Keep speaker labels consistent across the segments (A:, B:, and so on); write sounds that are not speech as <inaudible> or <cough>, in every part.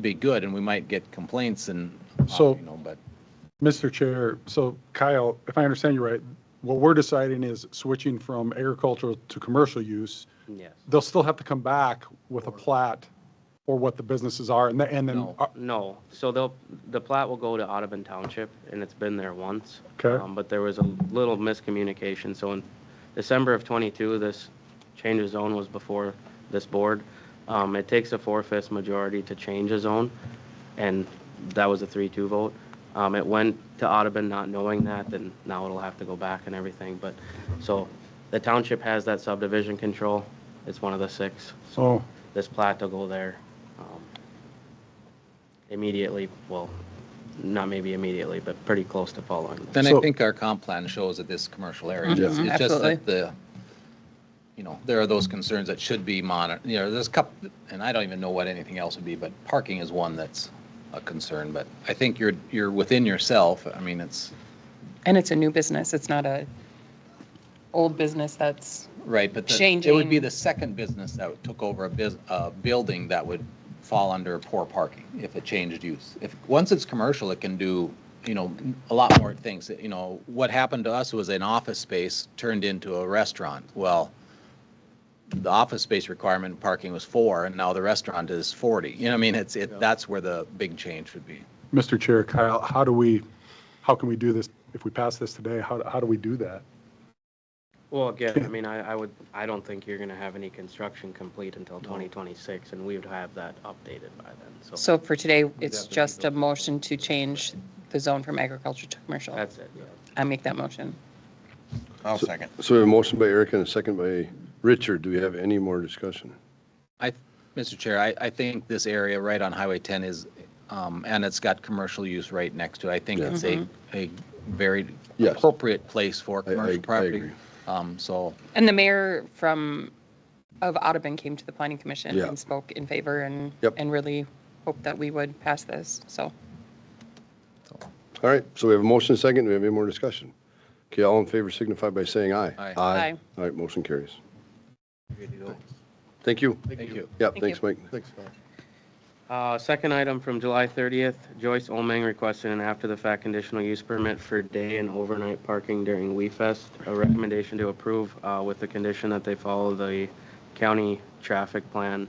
A: be good, and we might get complaints and,
B: So-
A: you know, but,
B: Mr. Chair, so Kyle, if I understand you right, what we're deciding is switching from agricultural to commercial use.
C: Yes.
B: They'll still have to come back with a plat or what the businesses are and then, and then,
A: No.
C: No, so they'll, the plat will go to Audubon Township, and it's been there once.
B: Okay.
C: Um, But there was a little miscommunication, so in December of '22, this change of zone was before this board. Um, It takes a four-fifths majority to change a zone, and that was a three-two vote. Um, It went to Audubon not knowing that, then now it'll have to go back and everything, but, so the township has that subdivision control, it's one of the six, so
B: so,
C: this plat to go there um, immediately, well, not maybe immediately, but pretty close to following. this.
A: then I
B: So-
A: think our comp plan shows that this commercial area.
D: Mhm,
A: is- It's just
D: absolutely.
A: that the, you know, there are those concerns that should be monitored, you know, there's a couple, and I don't even know what anything else would be, but parking is one that's a concern, but I think you're, you're within yourself, I mean, it's,
D: And it's a new business. It's not a old business that's,
A: right, but the- it would be
D: Changing-
A: the second business that took over a bus, a building that would fall under poor parking if it changed use. If, once it's commercial, it can do, you know, a lot more things, you know, what happened to us was an office space turned into a restaurant, well, the office space requirement in parking was four, and now the restaurant is forty, you know, what I mean, it's, it, that's where the big change would be.
B: Mr. Chair, Kyle, how do we, how can we do this? If we pass this today, how, how do we do that?
C: Well, again, I mean, I, I would, I don't think you're gonna have any construction complete until 2026, and we would have that updated by then, so
D: so for today, it's just a motion to change the zone from agriculture to commercial.
C: that's it, yeah.
D: I make that motion.
A: I'll second.
E: So we have a motion by Eric and a second by Richard. Do we have any more discussion?
A: I, Mr. Chair, I, I think this area right on Highway 10 is, um, and it's got commercial use right next to it. I think
E: Yeah.
A: it's a, a very
E: Yes.
A: appropriate place for
E: I- I-
A: commercial
E: I
A: property.
E: agree.
A: Um, so,
D: And the mayor from, of Audubon came to the planning commission
E: Yeah.
D: and spoke in favor and,
E: Yep.
D: and really hoped that we would pass this, so.
E: All right, so we have a motion and a second. Do we have any more discussion? Okay, all in favor signify by saying aye.
A: Aye.
D: Aye.
E: All right, motion carries. Thank you.
A: thank you.
E: Yeah,
D: Thank
E: thanks,
D: you.
E: Mike.
F: Thanks, Kyle.
C: Uh, Second item from July 30th, Joyce Olmang requested an after-the-fact conditional use permit for day and overnight parking during We Fest. A recommendation to approve uh, with the condition that they follow the county traffic plan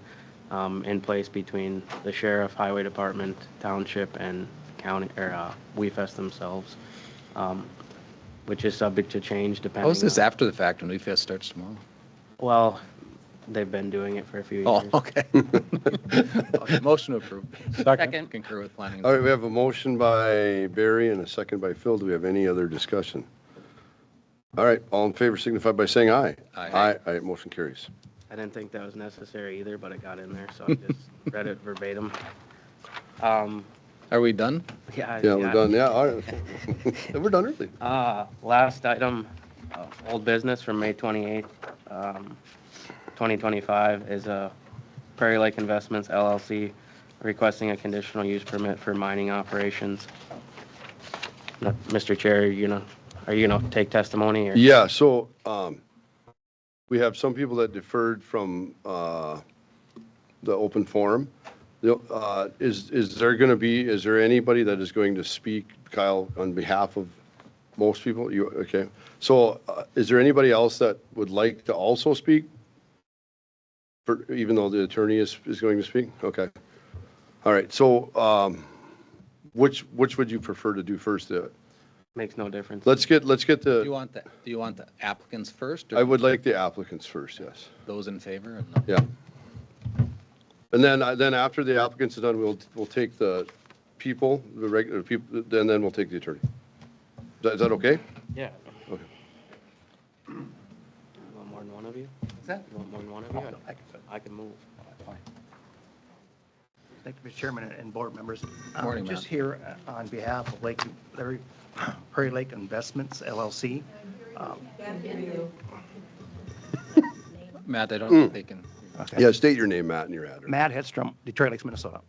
C: um, in place between the sheriff, highway department, township, and county, or uh, We Fest themselves, um, which is subject to change depending.
A: How's this
C: on-
A: after the fact when Leaf Fest starts tomorrow?
C: Well, they've been doing it for a few
A: Oh, <laughs>
C: years.
A: okay. Motion approved.
D: Second.
A: Concur with planning.
E: All right, we have a motion by Barry and a second by Phil. Do we have any other discussion? All right, all in favor signify by saying aye.
A: Aye.
E: Aye, aye, motion carries.
C: I didn't think that was necessary either, but it got in there, so
E: <laughs>
C: I just read it verbatim. Um,
A: Are we done?
C: yeah.
E: Yeah, we're done. Yeah, all right.
D: <laughs>
E: <laughs> We're done early.
C: Uh, last item, uh, old business from May twenty-eighth, um, twenty twenty-five is a Prairie Lake Investments LLC requesting a conditional use permit for mining operations. Now, Mr. Chair, you know, are you gonna take testimony or?
E: Yeah, so um, we have some people that deferred from uh, the open forum. The, uh, Is, is there going to be, is there anybody that is going to speak, Kyle, on behalf of most people? You, okay. So uh, is there anybody else that would like to also speak? For- Even though the attorney is, is going to speak? Okay. All right, so um, which, which would you prefer to do first? Uh,
C: Makes no difference.
E: Let's get, let's get the.
A: Do you want the, do you want the applicants first
E: I
A: or
E: would like the applicants first, yes.
A: those in favor? and the-
E: Yeah. And then, I- then after the applicants are done, we'll, we'll take the people, the regular people, then, then we'll take the attorney. Is that- is that okay?
C: Yeah.
E: Okay.
C: You Want more than one of you?
G: What's that?
C: You want more than one of you?
G: I can fit.
C: I can move.
G: Thank you, Mr. Chairman and board members. I'm
A: Morning,
G: Just
A: Matt.
G: here uh, on behalf of Lake, Larry- Prairie Lake Investments LLC.
A: Matt, I
E: Mm.
A: don't think they can.
E: Yeah, state your name, Matt, and your address.
G: Matt Hedstrom, Detroit Lakes, Minnesota.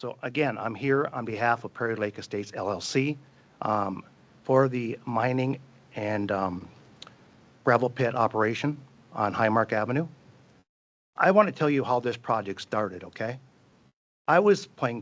G: So again, I'm here on behalf of Prairie Lake Estates LLC um, for the mining and um, gravel pit operation on Highmark Avenue. I want to tell you how this project started, okay? I was playing